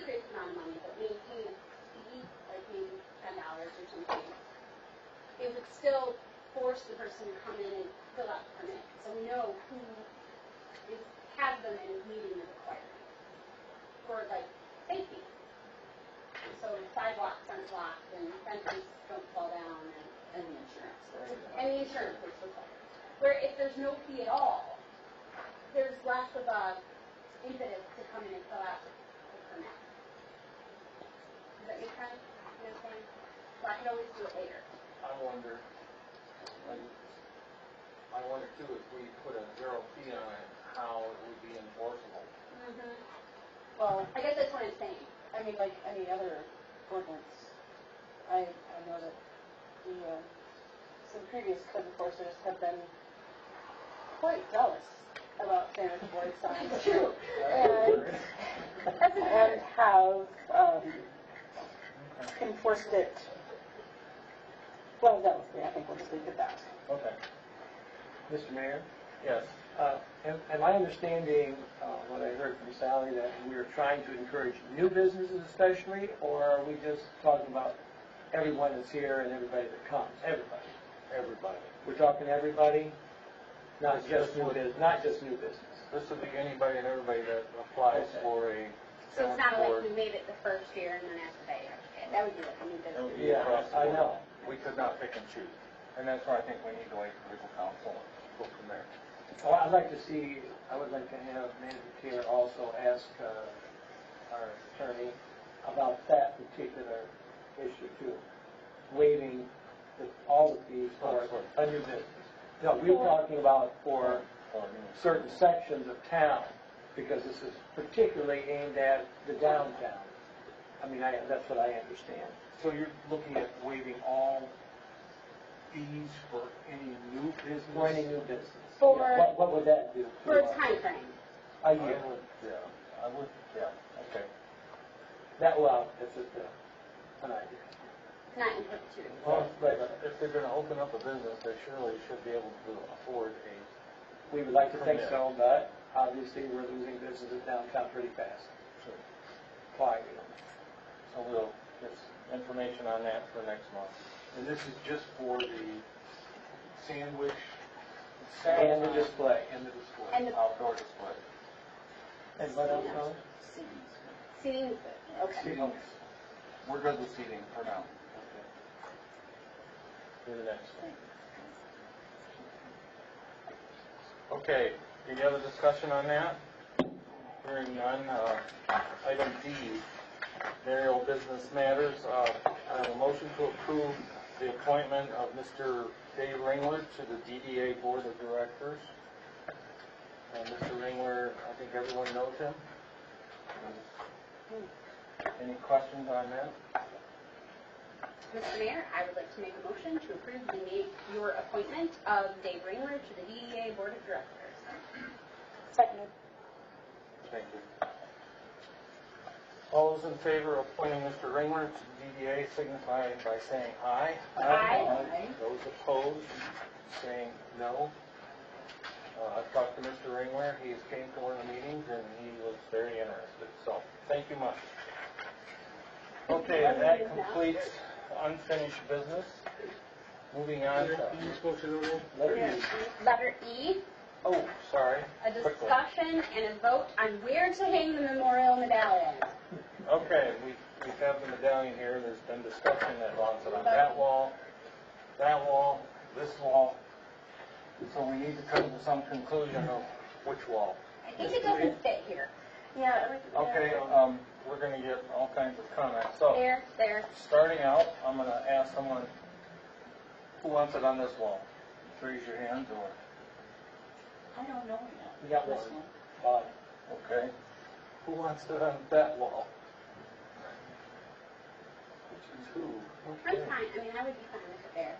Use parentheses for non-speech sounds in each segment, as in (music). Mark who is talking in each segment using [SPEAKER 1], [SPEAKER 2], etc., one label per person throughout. [SPEAKER 1] town money, but we use, we use like maybe ten dollars or something, it would still force the person to come in and fill out the permit, so know who is, has them and is meeting the requirement for like safety. So sidewalks aren't blocked and fences don't fall down and
[SPEAKER 2] And the insurance, that's
[SPEAKER 1] and the insurance is required. Where if there's no fee at all, there's less of a impetus to come in and fill out the permit. Does that make sense? You understand? So I can always do it later.
[SPEAKER 3] I wonder, like, I wonder too, if we put a zero fee on it, how it would be enforceable.
[SPEAKER 1] Mm-hmm.
[SPEAKER 2] Well,
[SPEAKER 1] I guess that's what I'm saying.
[SPEAKER 2] I mean, like any other ordinance, I, I know that the, uh, some previous code enforcers have been quite jealous about standard board signs.
[SPEAKER 1] (laughs) True.
[SPEAKER 2] And,
[SPEAKER 1] That's a
[SPEAKER 2] and have, um, enforced it. Well, that was, yeah, I think we'll just leave it at that.
[SPEAKER 4] Okay. Mr. Mayor,
[SPEAKER 3] Yes.
[SPEAKER 4] uh, am am I understanding uh, what I heard from Sally, that we're trying to encourage new businesses especially, or are we just talking about everyone that's here and everybody that comes? Everybody.
[SPEAKER 3] Everybody.
[SPEAKER 4] We're talking everybody, not just new business, not just new business.
[SPEAKER 3] This would be anybody and everybody that applies
[SPEAKER 4] Okay.
[SPEAKER 3] for a
[SPEAKER 1] So it's not
[SPEAKER 3] town
[SPEAKER 1] like
[SPEAKER 3] board.
[SPEAKER 1] you made it the first year and then after that, you have to pay. That would be like a new
[SPEAKER 3] That would
[SPEAKER 1] business.
[SPEAKER 3] be across the
[SPEAKER 4] I
[SPEAKER 3] board.
[SPEAKER 4] know.
[SPEAKER 3] We could not pick and choose. And that's why I think we need to wait for legal counsel and go from there.
[SPEAKER 4] Well, I'd like to see, I would like to have Manager Taylor also ask uh, our attorney about that particular issue too, waiving the- all of these for a new business. No, we we're talking about for certain sections of town, because this is particularly aimed at the downtown. I mean, I, that's what I understand.
[SPEAKER 3] So you're looking at waiving all fees for any new business?
[SPEAKER 4] For any new business.
[SPEAKER 1] For-
[SPEAKER 4] What, what would that do?
[SPEAKER 1] For a timeframe.
[SPEAKER 4] A
[SPEAKER 3] I would,
[SPEAKER 4] year.
[SPEAKER 3] yeah, I would, yeah, okay.
[SPEAKER 4] That, well, that's just a, an idea.
[SPEAKER 1] not in perpetuity.
[SPEAKER 3] Well, but if they're gonna open up a business, they surely should be able to afford a,
[SPEAKER 4] We would like to think so, but obviously, we're losing businesses downtown pretty fast. Why, you know?
[SPEAKER 3] so we'll, get information on that for next month. And this is just for the sandwich?
[SPEAKER 4] And the display.
[SPEAKER 3] And the display.
[SPEAKER 1] And the-
[SPEAKER 3] Outdoor display.
[SPEAKER 4] And what else, Tom?
[SPEAKER 1] Seeing, okay.
[SPEAKER 3] Seating, we're good with seating for now. For the next one. Okay, any other discussion on that? Hearing none, uh, item D, burial business matters, uh, I have a motion to approve the appointment of Mr. Dave Ringler to the DDA Board of Directors. And Mr. Ringler, I think everyone knows him. Any questions on that?
[SPEAKER 1] Mr. Mayor, I would like to make a motion to approve the na- your appointment of Dave Ringler to the DDA Board of Directors.
[SPEAKER 2] Seconded.
[SPEAKER 3] Thank you. All those in favor of appointing Mr. Ringler to DDA signify by saying aye.
[SPEAKER 1] Aye.
[SPEAKER 3] Those opposed, saying no. Uh, I've talked to Mr. Ringler, he came to one of the meetings and he was very interested, so thank you much. Okay, and that completes unfinished business. Moving on to,
[SPEAKER 4] Let me-
[SPEAKER 1] Letter E,
[SPEAKER 3] oh, sorry.
[SPEAKER 1] a
[SPEAKER 3] Quickly.
[SPEAKER 1] discussion and a vote on where to hang the memorial medallion.
[SPEAKER 3] Okay, we, we have the medallion here, there's been discussion that runs on that wall, that wall, this wall. So we need to come to some conclusion of which wall.
[SPEAKER 1] I think it doesn't fit here. Yeah. it was-
[SPEAKER 3] Okay, um, we're gonna get all kinds of comments, so,
[SPEAKER 1] There, there.
[SPEAKER 3] starting out, I'm gonna ask someone, who wants it on this wall? Raise your hand, or,
[SPEAKER 2] I don't know
[SPEAKER 4] We got one. Bob.
[SPEAKER 3] okay, who wants it on that wall? Which is who?
[SPEAKER 1] I'm
[SPEAKER 3] Okay.
[SPEAKER 1] fine, I mean, I would be fine with it there.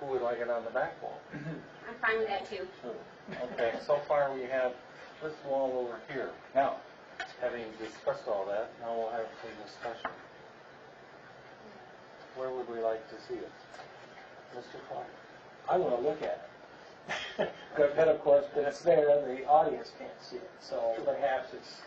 [SPEAKER 3] Who would like it on the back wall?
[SPEAKER 1] I'm fine with that too.
[SPEAKER 3] Okay, so far we have this wall over here. Now, having discussed all that, now we'll have some discussion. Where would we like to see it? Mr. Clark?
[SPEAKER 4] I want to look at (laughs) it. But then, of course, when it's there, the audience can't see it, so perhaps it's